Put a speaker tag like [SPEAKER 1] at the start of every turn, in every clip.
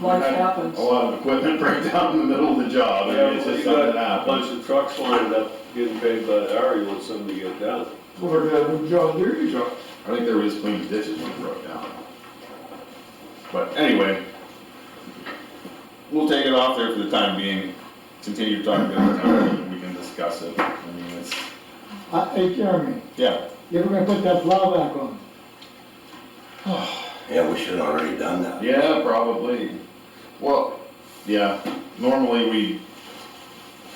[SPEAKER 1] life happens.
[SPEAKER 2] A lot of equipment break down in the middle of the job, I mean, it's just something that
[SPEAKER 3] A
[SPEAKER 2] happens.
[SPEAKER 3] bunch of trucks lined up getting paid by the hour, you want somebody to get down.
[SPEAKER 4] Well, we got a new John Deere truck.
[SPEAKER 2] I think they were just cleaning ditches when it broke down. But anyway, we'll take it off there for the time being, continue talking to the town, and we can discuss it. I mean, it's,
[SPEAKER 4] Uh, Hey Jeremy,
[SPEAKER 2] yeah,
[SPEAKER 4] you ever gonna put that plow back on?
[SPEAKER 5] Yeah, we should have already done that.
[SPEAKER 2] yeah, probably. Well, yeah, normally we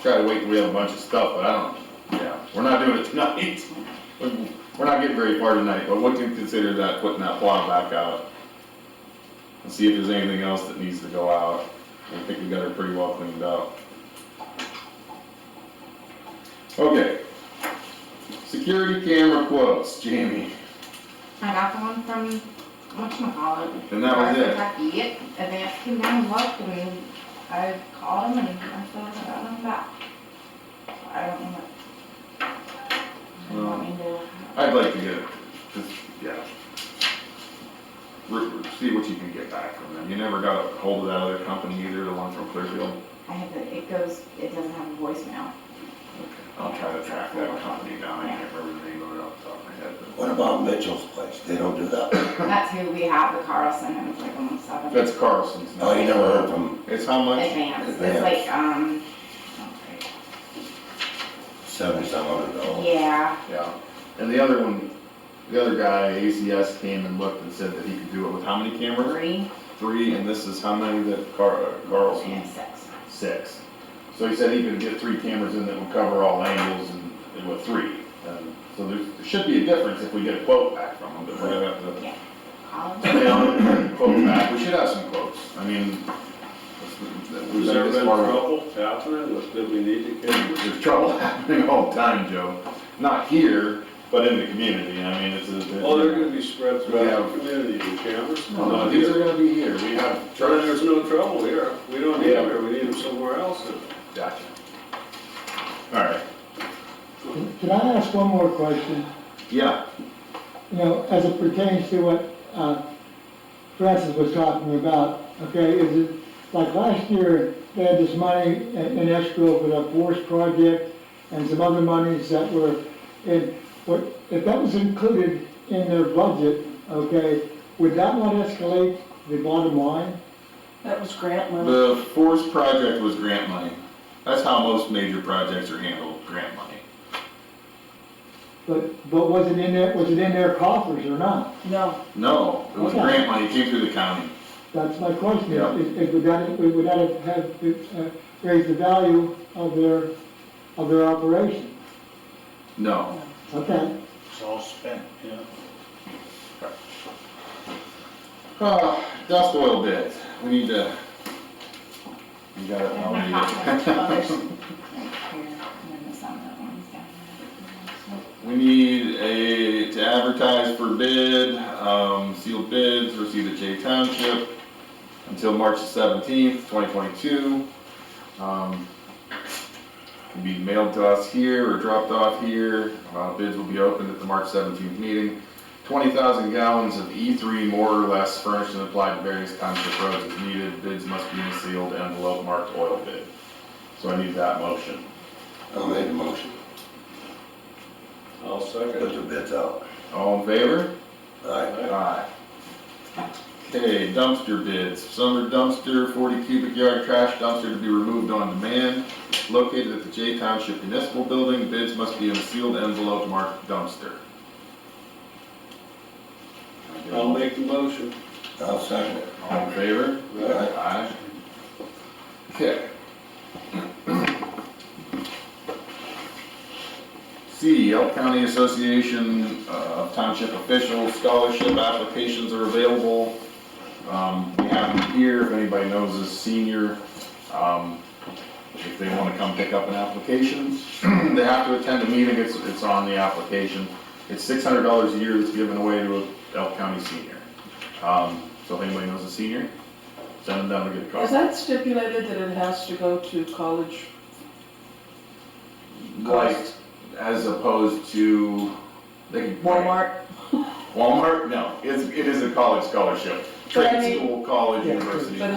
[SPEAKER 2] try to wait till we have a bunch of stuff, but I don't, yeah, we're not doing it tonight. We- We're not getting very far tonight, but we can consider that, putting that plow back out. And see if there's anything else that needs to go out. I think we got her pretty well cleaned up. Okay. Security camera quotes, Jamie,
[SPEAKER 6] I got the one from, whatchamacallit.
[SPEAKER 2] and that was it.
[SPEAKER 6] Kentucky, yep, Advance came down and looked, and I called him and I said, I got them back. So I don't know what. I don't want me to-
[SPEAKER 2] I'd like to get, just, yeah. Re- re- See what you can get back from them. You never got a hold of that other company either, the one from Clearfield?
[SPEAKER 6] I have, the- it goes, it doesn't have a voicemail.
[SPEAKER 2] I'll try to track that company down. I can't remember the name of it off the top of my head.
[SPEAKER 5] What about Mitchell's place? They don't do that.
[SPEAKER 6] That's who we have, the Carlson, and it's like almost
[SPEAKER 2] but-
[SPEAKER 6] seven.
[SPEAKER 2] That's Carlson's. now.
[SPEAKER 5] Oh, you never heard from
[SPEAKER 2] It's how much?
[SPEAKER 6] Advance, it's like, um,
[SPEAKER 5] seventy-seven hundred dollars?
[SPEAKER 6] yeah,
[SPEAKER 2] Yeah. And the other one, the other guy, ACS came and looked and said that he could do it with how many cameras?
[SPEAKER 6] three
[SPEAKER 2] Three, and this is how many that Car- uh, Carlson?
[SPEAKER 6] and six.
[SPEAKER 2] Six. So he said he could get three cameras in that would cover all angles and, and with three. Um, So there there should be a difference if we get a quote back from him, but we're gonna have to.
[SPEAKER 6] Call them.
[SPEAKER 2] stay on it and Quote back, we should have some quotes, I mean. it's- we've
[SPEAKER 3] Has
[SPEAKER 2] been
[SPEAKER 3] there
[SPEAKER 2] this
[SPEAKER 3] been
[SPEAKER 2] far-
[SPEAKER 3] trouble happening? What, did we need to get?
[SPEAKER 2] There's trouble happening all the time, Joe, not here, but in the community, I mean, it's a.
[SPEAKER 3] Oh, they're gonna be spread throughout
[SPEAKER 2] Yeah.
[SPEAKER 3] the community, the cameras.
[SPEAKER 2] No, no, these are gonna be here, we have.
[SPEAKER 3] Charlie, there's no trouble here. We don't need them here, we need them somewhere else.
[SPEAKER 2] Gotcha. All right,
[SPEAKER 4] Can I ask one more question?
[SPEAKER 2] yeah,
[SPEAKER 4] You know, as it pertains to what, uh, Francis was talking about, okay, is it, like last year, they had this money in in escrow for the forest project and some other monies that were in, what, if that was included in their budget, okay, would that not escalate the bottom line?
[SPEAKER 1] That was grant money.
[SPEAKER 2] the forest project was grant money, that's how most major projects are handled, grant money.
[SPEAKER 4] But, but was it in their, was it in their coffers or not?
[SPEAKER 1] No,
[SPEAKER 2] No, it was
[SPEAKER 4] Okay.
[SPEAKER 2] grant money, it came through the county.
[SPEAKER 4] That's my question,
[SPEAKER 2] Yeah.
[SPEAKER 4] is, is would that, would that have- have uh, raised the value of their, of their operation?
[SPEAKER 2] No,
[SPEAKER 4] Okay,
[SPEAKER 7] It's all spent, yeah.
[SPEAKER 2] Uh, dust oil bids, we need to. You got it,
[SPEAKER 6] There's
[SPEAKER 2] I'll
[SPEAKER 6] my
[SPEAKER 2] read
[SPEAKER 6] copy. Oh, there's
[SPEAKER 2] it.
[SPEAKER 6] right here, and then the sun that one's down there.
[SPEAKER 2] We need a, to advertise for bid, um, sealed bids received at Jay Township until March seventeenth, twenty twenty-two. Um, can be mailed to us here or dropped off here, uh, bids will be opened at the March seventeenth meeting. Twenty thousand gallons of E three more or less furnished and applied to various township roads as needed, bids must be in a sealed envelope marked oil bid. So I need that motion.
[SPEAKER 5] I made a motion,
[SPEAKER 3] I'll second.
[SPEAKER 5] put the bids out.
[SPEAKER 2] All in favor?
[SPEAKER 5] All right,
[SPEAKER 2] Aye. Okay, dumpster bids, summer dumpster, forty cubic yard trash dumpster to be removed on demand, located at the J Township Municipal Building, bids must be in a sealed envelope marked dumpster.
[SPEAKER 3] I'll make the motion.
[SPEAKER 5] I'll second it.
[SPEAKER 2] All in favor? Aye. Okay. C, Elk County Association uh, of Township Officials, scholarship applications are available. Um, We have them here, if anybody knows a senior, um, if they want to come pick up an application. They have to attend a meeting, it's, it's on the application. It's six hundred dollars a year that's given away to an Elk County senior. Um, So if anybody knows a senior, send them down to get a copy.
[SPEAKER 1] is that stipulated that it has to go to college?
[SPEAKER 2] Like,
[SPEAKER 1] cost?
[SPEAKER 2] as opposed to, they can.
[SPEAKER 1] Walmart?
[SPEAKER 2] Walmart, no, it's, it is a college scholarship,
[SPEAKER 1] But I
[SPEAKER 2] trade
[SPEAKER 1] mean-
[SPEAKER 2] school, college,
[SPEAKER 4] Yeah.
[SPEAKER 2] university.
[SPEAKER 1] But